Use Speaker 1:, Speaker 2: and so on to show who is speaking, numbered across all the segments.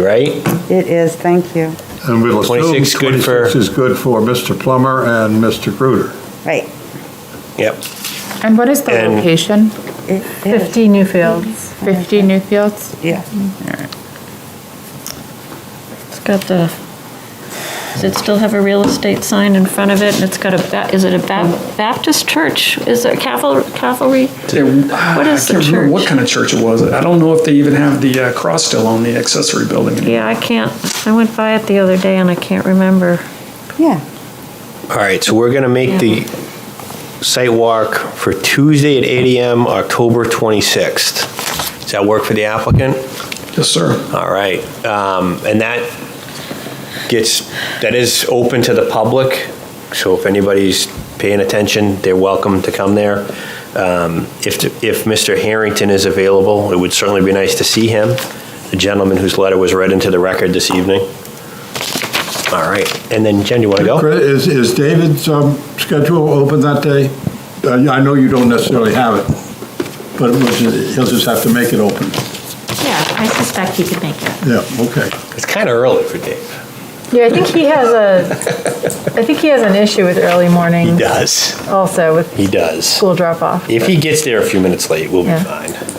Speaker 1: right?
Speaker 2: It is, thank you.
Speaker 3: And we'll assume
Speaker 1: 26
Speaker 3: 26
Speaker 1: good for-
Speaker 3: is good for Mr. Plummer and Mr. Gruder.
Speaker 2: Right.
Speaker 1: Yep.
Speaker 4: And what is the
Speaker 1: And-
Speaker 4: location?
Speaker 2: It is,
Speaker 4: 50 Newfields. 50 Newfields?
Speaker 2: yeah.
Speaker 5: It's got the, does it still have a real estate sign in front of it? And it's got a, ba- is it a Ba- Baptist church? Is it caval- cavalry?
Speaker 6: What
Speaker 5: is the
Speaker 6: I can't remember what
Speaker 5: church?
Speaker 6: kind of church it was. I don't know if they even have the uh, cross still on the accessory building. anymore.
Speaker 5: Yeah, I can't, I went by it the other day and I can't remember.
Speaker 2: Yeah.
Speaker 1: All right, so we're going to make the site walk for Tuesday at 8 AM, October 26th. Does that work for the applicant?
Speaker 6: Yes, sir.
Speaker 1: All right, um, and that gets, that is open to the public, so if anybody's paying attention, they're welcome to come there. Um, If, if Mr. Harrington is available, it would certainly be nice to see him, the gentleman whose letter was read into the record this evening. All right, and then Jen, you want to go?
Speaker 3: Chris, Is, is David's um, schedule open that day? Uh, I know you don't necessarily have it, but it was- he'll just have to make it open.
Speaker 7: Yeah, I suspect he could make it.
Speaker 3: Yeah, okay.
Speaker 1: It's kind of early for Dave.
Speaker 4: Yeah, I think he has a, I think he has an issue with early
Speaker 1: He
Speaker 4: morning
Speaker 1: does,
Speaker 4: also with
Speaker 1: he does.
Speaker 4: school drop-off.
Speaker 1: If he gets there a few minutes late, we'll be
Speaker 4: Yeah.
Speaker 1: fine.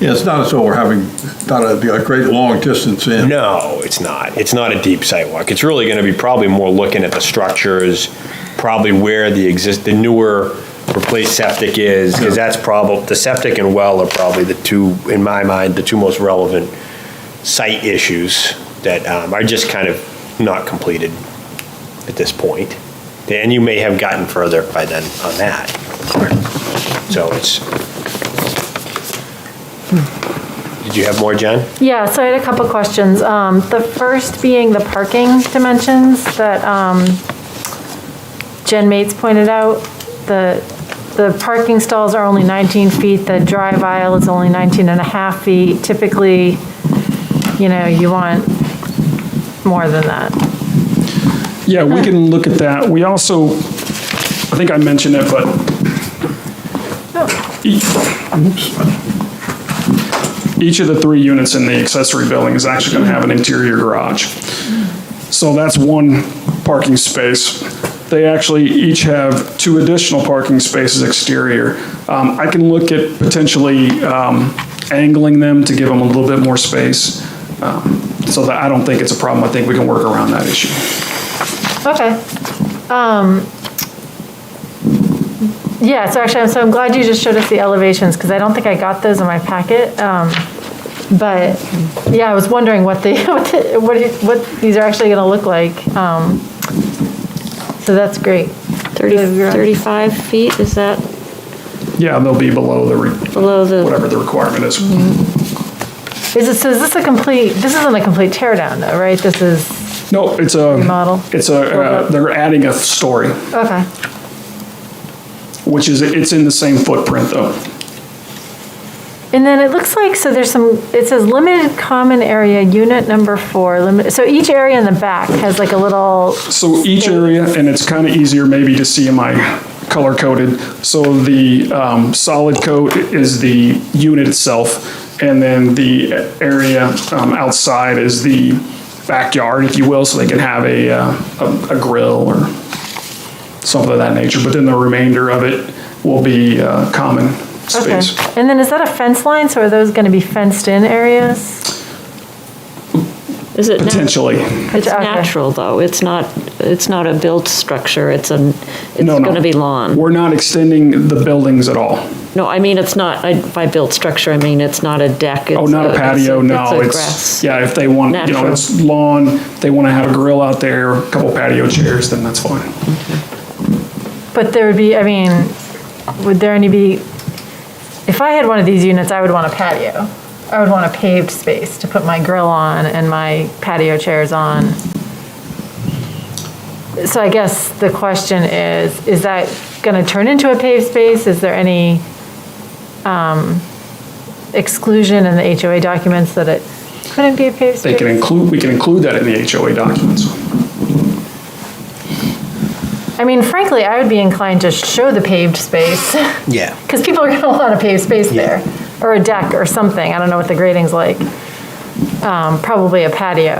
Speaker 3: Yeah, it's not as though we're having, not a, be a great long distance in.
Speaker 1: No, it's not. It's not a deep sidewalk. It's really going to be probably more looking at the structures, probably where the exist, the newer replaced septic is, because that's probably, the septic and well are probably the two, in my mind, the two most relevant site issues that um, are just kind of not completed at this point. And you may have gotten further by then on that. So it's. Did you have more, Jen?
Speaker 8: Yeah, so I had a couple questions. Um, The first being the parking dimensions that um, Jen Mates pointed out. The, the parking stalls are only 19 feet, the drive aisle is only 19 and a half feet. Typically, you know, you want more than that.
Speaker 6: Yeah, we can look at that. We also, I think I mentioned it, but. e-, Each of the three units in the accessory building is actually going to have an interior garage. So that's one parking space. They actually each have two additional parking spaces exterior. Um, I can look at potentially um, angling them to give them a little bit more space. Um, So that, I don't think it's a problem. I think we can work around that issue.
Speaker 8: Okay. Um, Yeah, so actually, I'm- so I'm glad you just showed us the elevations, because I don't think I got those in my packet. Um, But, yeah, I was wondering what the, what the- what, it- what these are actually going to look like. Um, So that's great.
Speaker 5: 30, 35 feet, is that
Speaker 6: Yeah, they'll be below the, re-
Speaker 5: below the,
Speaker 6: whatever the requirement is.
Speaker 8: Is it, so is this a complete, this isn't a complete tear down, though, right? This is,
Speaker 6: No, it's a.
Speaker 8: Remodel.
Speaker 6: It's a, uh, they're adding a story,
Speaker 8: okay,
Speaker 6: which is, it's in the same footprint though.
Speaker 8: And then it looks like, so there's some, it says limited common area, unit number four, limit, so each area in the back has like a little,
Speaker 6: So each area, and it's kind of easier maybe to see in my color coded. So the um, solid coat is the unit itself, and then the area um, outside is the backyard, if you will, so they can have a, uh, a a grill or something of that nature. But then the remainder of it will be uh, common
Speaker 8: okay.
Speaker 6: space.
Speaker 8: And then is that a fence line, so are those going to be fenced in areas?
Speaker 5: is it? nat-
Speaker 6: Potentially.
Speaker 5: It's
Speaker 8: Okay.
Speaker 5: natural, though. It's not, it's not a built structure. It's an, it's
Speaker 6: No, no.
Speaker 5: going to be lawn.
Speaker 6: We're not extending the buildings at all.
Speaker 5: No, I mean, it's not, I- by built structure, I mean, it's not a deck.
Speaker 6: Oh,
Speaker 5: it's
Speaker 6: not a patio, no,
Speaker 5: a
Speaker 6: it's,
Speaker 5: grass.
Speaker 6: yeah, if they want, you know,
Speaker 5: Natural.
Speaker 6: it's lawn, if they want to have a grill out there, a couple patio chairs, then that's fine.
Speaker 8: But there would be, I mean, would there any be, if I had one of these units, I would want a patio. I would want a paved space to put my grill on and my patio chairs on. So I guess the question is, is that going to turn into a paved space? Is there any um, exclusion in the HOA documents that it couldn't be a paved
Speaker 6: They
Speaker 8: space?
Speaker 6: can include, we can include that in the HOA documents.
Speaker 8: I mean, frankly, I would be inclined to show the paved space.
Speaker 1: Yeah.
Speaker 8: Because people are going to want a paved space there, or a deck or something. I don't know what the grading's like. um, probably a patio.